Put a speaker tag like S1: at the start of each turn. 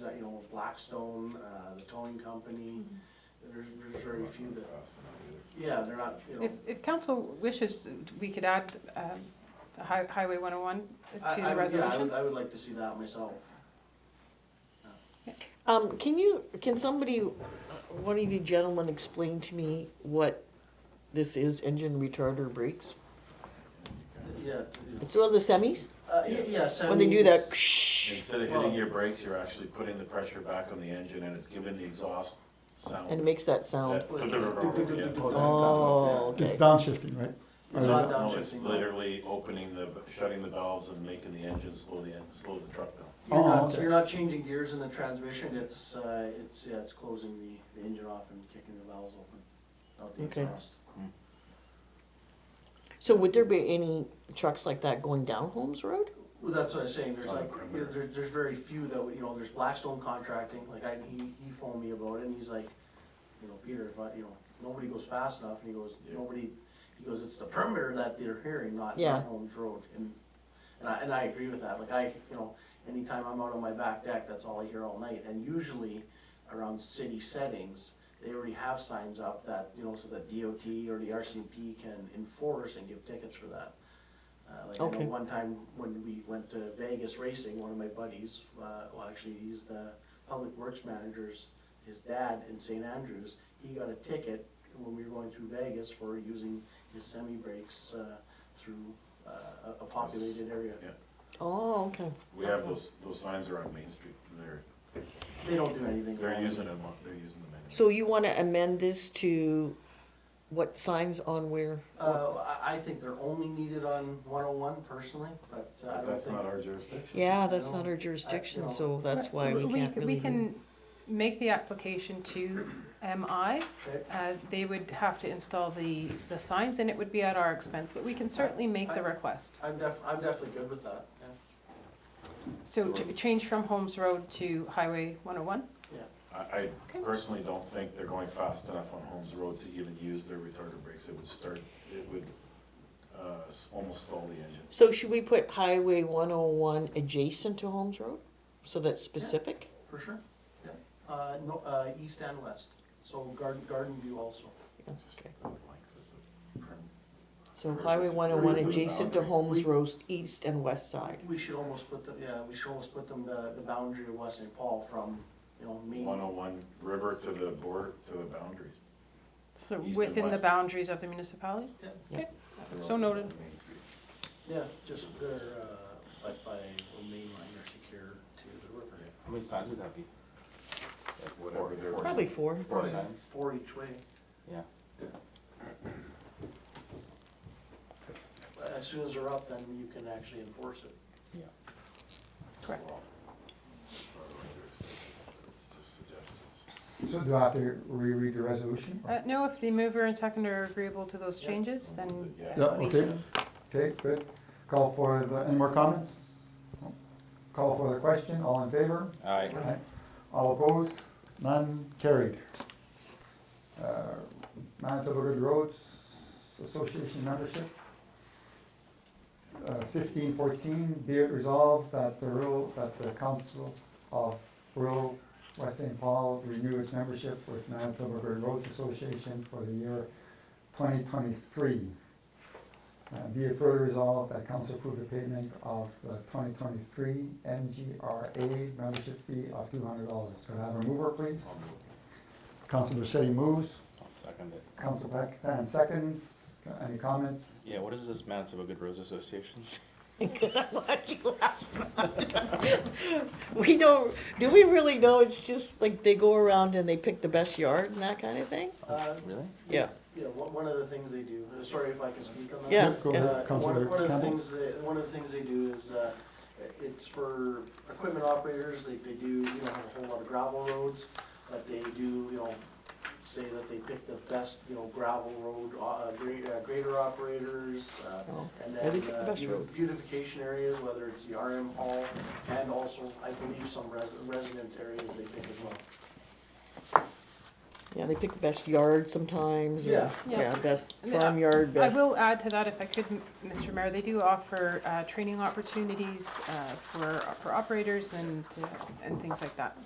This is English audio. S1: uh, you know, Blackstone, uh, the towing company,
S2: Mm-hmm.
S1: there's, there's very few that, yeah, they're not, you know.
S2: If, if council wishes, we could add um, the hi- Highway 101
S1: I-
S2: to
S1: I
S2: the
S1: would- yeah, I
S2: resolution.
S1: would- I would like to see that myself.
S3: Um, can you, can somebody, one of you gentlemen explain to me what this is, engine retarder brakes?
S1: Yeah, you know.
S3: It's one of the semis,
S1: Uh, yeah, yeah, so. I
S3: when they
S1: mean,
S3: do that,
S1: it's-
S3: ksh,
S4: Instead of
S1: Well-
S4: hitting your brakes, you're actually putting the pressure back on the engine and it's giving the exhaust sound.
S3: and it makes that sound.
S4: That-
S1: Well, it's-
S3: Oh,
S5: It's
S3: okay,
S5: downshifting, right?
S1: It's not
S4: No, it's
S1: downshifting, no.
S4: literally opening the, shutting the valves and making the engine slow the, en- slow the truck down.
S1: You're
S5: Oh,
S1: not,
S5: okay.
S1: you're not changing gears in the transmission, it's, uh, it's, yeah, it's closing the, the engine off and kicking the valves open, out the
S3: Okay.
S1: exhaust.
S3: so would there be any trucks like that going down Holmes Road?
S1: Well, that's what I was saying, there's
S4: It's on the
S1: like, you know,
S4: perimeter.
S1: there's, there's very few that, would- you know, there's Blackstone contracting, like I, he, he phoned me about it and he's like, you know, Peter, if I, you know, nobody goes fast enough and he goes,
S4: Yeah.
S1: nobody, he goes, it's the perimeter that they're hearing, not
S3: Yeah.
S1: not Holmes Road. And, and I, and I agree with that, like I, you know, anytime I'm out on my back deck, that's all I hear all night. And usually around city settings, they already have signs up that, you know, so that DOT or the RCMP can enforce and give tickets for that. Uh, like, I know
S3: Okay.
S1: one time when we went to Vegas racing, one of my buddies, uh, well, actually, he's the public works manager's, his dad in St. Andrews, he got a ticket when we were going through Vegas for using his semi brakes, uh, through, uh, a- a populated area.
S4: Yeah.
S3: Oh, okay,
S4: We have those, those signs are on Main Street, they're,
S1: They don't do anything.
S4: they're
S1: wrong.
S4: using them, on- they're using them. anyway.
S3: so you wanna amend this to what signs on where?
S1: Uh, I, I think they're only needed on one oh one personally, but uh, I
S4: But
S1: don't
S4: that's
S1: think.
S4: not our jurisdiction.
S3: Yeah, that's not
S1: No, I-
S3: our jurisdiction,
S1: no.
S3: so that's why we can't
S2: c-
S3: really.
S2: We can make the application to MI.
S1: Okay.
S2: Uh, They would have to install the, the signs and it would be at our expense, but we can certainly make the request.
S1: I'm def, I'm definitely good with that, yeah.
S2: So to change from Holmes Road to Highway 101?
S4: I, I
S2: Okay.
S4: personally don't think they're going fast enough on Holmes Road to even use their retarded brakes. It would start, it would, uh, s- almost stall the engine.
S3: So should we put Highway one oh one adjacent to Holmes Road? So that's specific?
S1: For sure, yeah. Uh, no, uh, east and west, so Garden, Garden View also.
S4: Just
S3: Okay.
S4: the length of the prim-
S3: So Highway one oh one adjacent to Holmes Road, east and west side.
S1: We should almost put them, yeah, we should almost put them the, the boundary of West St. Paul from, you know, Main.
S4: 101 river to the board, to the boundaries.
S2: So
S4: East and
S2: within the
S4: west.
S2: boundaries of the municipality? Uh,
S1: Yeah.
S2: Okay, so noted.
S4: oh-
S1: Yeah, just they're, uh, like by the main line are secure to the river.
S6: How many signs would that be? Like
S4: Whatever they're-
S3: Probably four.
S6: Four signs,
S1: Four each way.
S6: yeah.
S1: Uh, As soon as they're up, then you can actually enforce it.
S2: Correct.
S4: It's just suggestions.
S5: So do I have to reread the resolution?
S2: Uh, No, if the mover and seconder are agreeable to those
S1: Yeah.
S2: changes, then
S4: Yeah.
S5: Yeah, okay, okay, good. Call for, the any more comments? Call for the question, all in favor?
S6: Aye.
S5: Aye. All opposed? None carried. Uh, Manitoba Good Roads Association membership. uh, Fifteen fourteen, be it resolved that the rural, that the council of rural West St. Paul renew its membership with Manitoba Good Roads Association for the year twenty twenty-three. Uh, Be it further resolved that council approve the payment of the twenty twenty-three MGRA membership fee of two hundred dollars. Could I have a mover, please?
S4: I'll move.
S5: Councilor Shetty moves.
S6: I'll second it.
S5: Council Blackton seconds. Any comments?
S6: Yeah, what is this Manitoba Good Roads Association?
S3: We don't, do we really know? It's just like they go around and they pick the best yard and that kind of thing?
S1: Uh,
S6: Really?
S3: Yeah.
S1: Yeah, one, one of the things they do, uh, sorry if I can speak on that.
S3: Yeah,
S5: Go ahead,
S1: Uh, one-
S5: Councilor
S1: One of the
S5: Campbell.
S1: things, they- one of the things they do is, uh, it's for equipment operators, they, they do, you know, have a whole lot of gravel roads, but they do, you know, say that they pick the best, you know, gravel road, uh, gra- uh, grader operators, uh,
S3: Oh,
S1: and
S3: yeah, they
S1: then
S3: pick the
S1: uh,
S3: best
S1: beau-
S3: road.
S1: beautification areas, whether it's the RM hall, and also, I believe, some res- residence areas they pick as well.
S3: Yeah, they pick best yard sometimes, or,
S1: Yeah.
S2: Yeah.
S3: yeah, best
S2: And, uh,
S3: farm yard,
S2: I
S3: best.
S2: will add to that, if I could, M- Mr. Mayor, they do offer uh, training opportunities uh, for, for operators and, uh, and things like that.